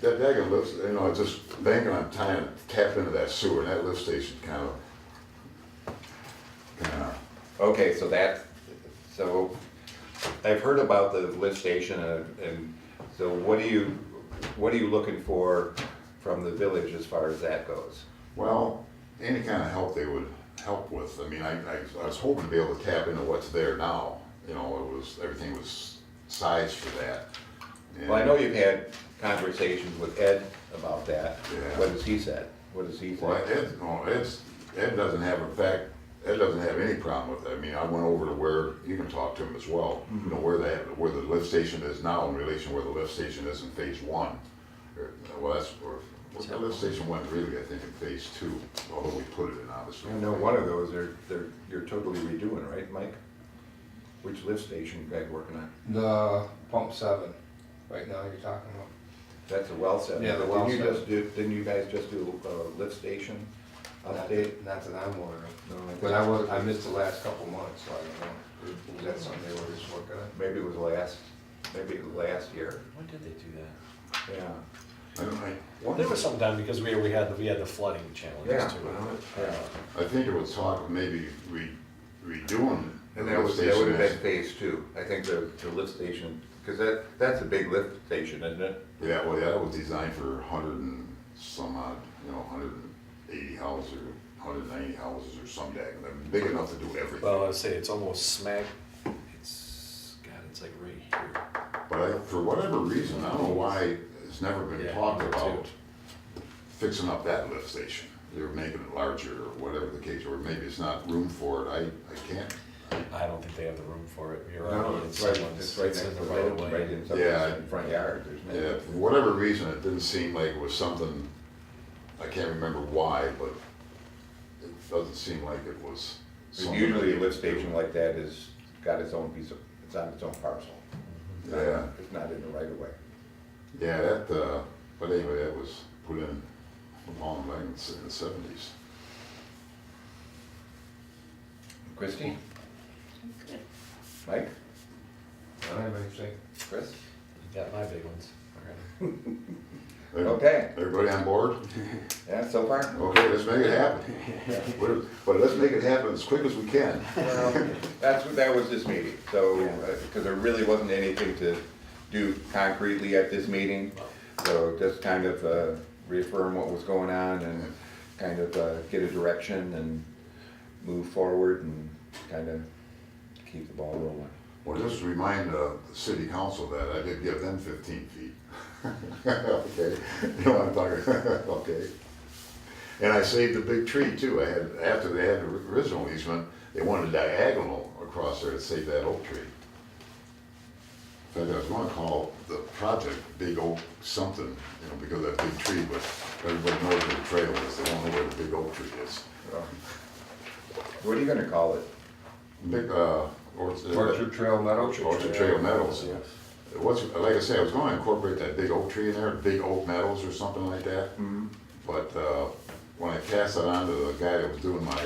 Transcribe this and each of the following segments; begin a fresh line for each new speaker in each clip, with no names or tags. that daggone lift, you know, I just thinking I'm trying to tap into that sewer, and that lift station kind of, kind of,
Okay, so that, so I've heard about the lift station and, and so what do you, what are you looking for from the village as far as that goes?
well, any kind of help they would help with. I mean, I, I, I was hoping to be able to tap into what's there now, you know, it was, everything was sized for that.
Well, I know you've had conversations with Ed about that.
Yeah.
What has he said? What has he
Well,
said?
Ed, no, Ed's, Ed doesn't have, in fact, Ed doesn't have any problem with that. I mean, I went over to where, you can talk to him as well, you know, where that, where the lift station is now in relation where the lift station is in phase one. Or, Well, that's, or, well, the lift station went really, I think, in phase two, although we put it in, obviously.
I know one of those are, they're, you're totally redoing, right, Mike? Which lift station you guys working on?
The pump seven, right now you're talking about.
That's a well set.
Yeah, the
Didn't
well
you
set.
just do- Didn't you guys just do a lift station
Not
update?
that, not that I'm aware of.
No, I
But I was, I missed the last couple months, so I don't know. Was that something they were just working on?
Maybe it was last, maybe it was last year.
When did they do that?
Yeah.
I don't, I,
There was some time because we, we had, we had the flooding
Yeah.
challenges too.
Yeah.
I think it was talk of maybe re, redoing. the
And that was,
lift
that would have been
station
phase two. I think the, the lift station, because that, that's a big lift station, isn't it?
as- Yeah, well, yeah, that was designed for hundred and some odd, you know, hundred and eighty houses or hundred and ninety houses or some dag, big enough to do everything.
Well, I'd say it's almost smack, it's, God, it's like right here.
But I, for whatever reason, I don't know why it's never been
Yeah,
talked
me
about
too.
fixing up that lift station. They're making it larger or whatever the case, or maybe it's not room for it. I, I can't.
I don't think they have the room for it. You're
No,
right.
it's right,
someone's-
it's right next
it's
to
in
the
the right
road,
of way.
right in
Yeah.
somebody's front yard. There's no-
Yeah, for whatever reason, it didn't seem like it was something, I can't remember why, but it doesn't seem like it was.
And
something-
Usually a lift station like that is, got its own piece of, it's on its own parcel. It's not-
Yeah.
It's not in the right of way.
Yeah, that, uh, but anyway, that was put in long, like in the seventies.
Christie? Mike?
I don't have anything.
Chris?
You Got my big ones already.
Okay.
Everybody on board?
Yeah, so far?
Okay, let's make it happen. We're- But let's make it happen as quick as we can.
Well, That's what, that was this meeting, so, because there really wasn't anything to do concretely at this meeting. So just kind of uh, reaffirm what was going on and kind of uh, get a direction and move forward and kind of keep the ball rolling.
Well, just remind uh, the city council that I did give them fifteen feet. Okay, you know what I'm talking, okay. And I saved the big tree too. I had, after they had the original easement, they wanted a diagonal across there to save that oak tree. In fact, I was gonna call the project Big Oak something, you know, because that big tree, but everybody knows where the trail is. They don't know where the big oak tree is.
What are you gonna call it?
Big, uh, or.
Orchard Trail Meadow.
Orchard Trail Meadows. What's, like I said, I was gonna incorporate that big oak tree in there, big oak meadows or something like that.
Mm-hmm.
But, uh, when I passed it on to the guy that was doing my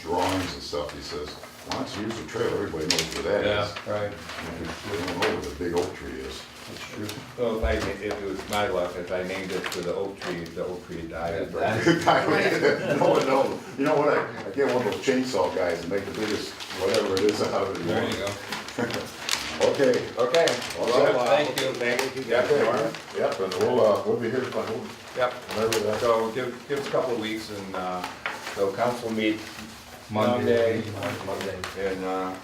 drawings and stuff, he says, why don't you use the trail, everybody knows where that is.
Right,
They don't know where the big oak tree is.
that's true.
Well, if I, if it was my luck, if I named it for the oak tree, the oak tree died.
No one knows, you know what, I, I get one of those chainsaw guys and make the biggest, whatever it is out of it.
There you go.
Okay.
Okay.
All
well,
right.
uh, Thank you. Yep, Norm.
Yep, and we'll, uh, we'll be here if I hold,
Yep.
whenever that.
So give, give us a couple of weeks and, uh, so council meet
Monday.
Monday. Monday. And, uh,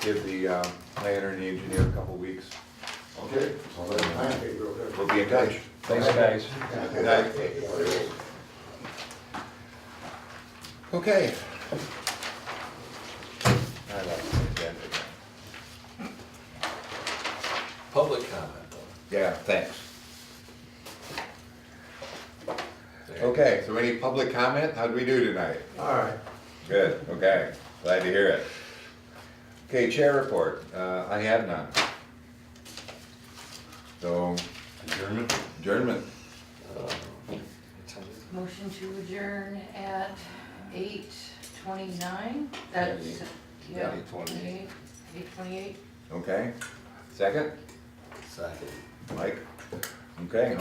give the, uh, planner and the engineer a couple of weeks.
Okay. So then, thank you.
We'll be in touch.
Thanks, guys.
Good night. Okay. I like the agenda.
Public comment though.
Yeah, thanks. Okay, so any public comment? How'd we do tonight?
All right.
Good, okay, glad to hear it. Okay, chair report, uh, I have none. So. Adjournment? Adjournment,
What time is it?
Motion to adjourn at eight twenty-nine, that's, yeah,
Eight twenty-eight.
twenty-eight, eight twenty-eight.
okay, second,
Second.
Mike? Okay,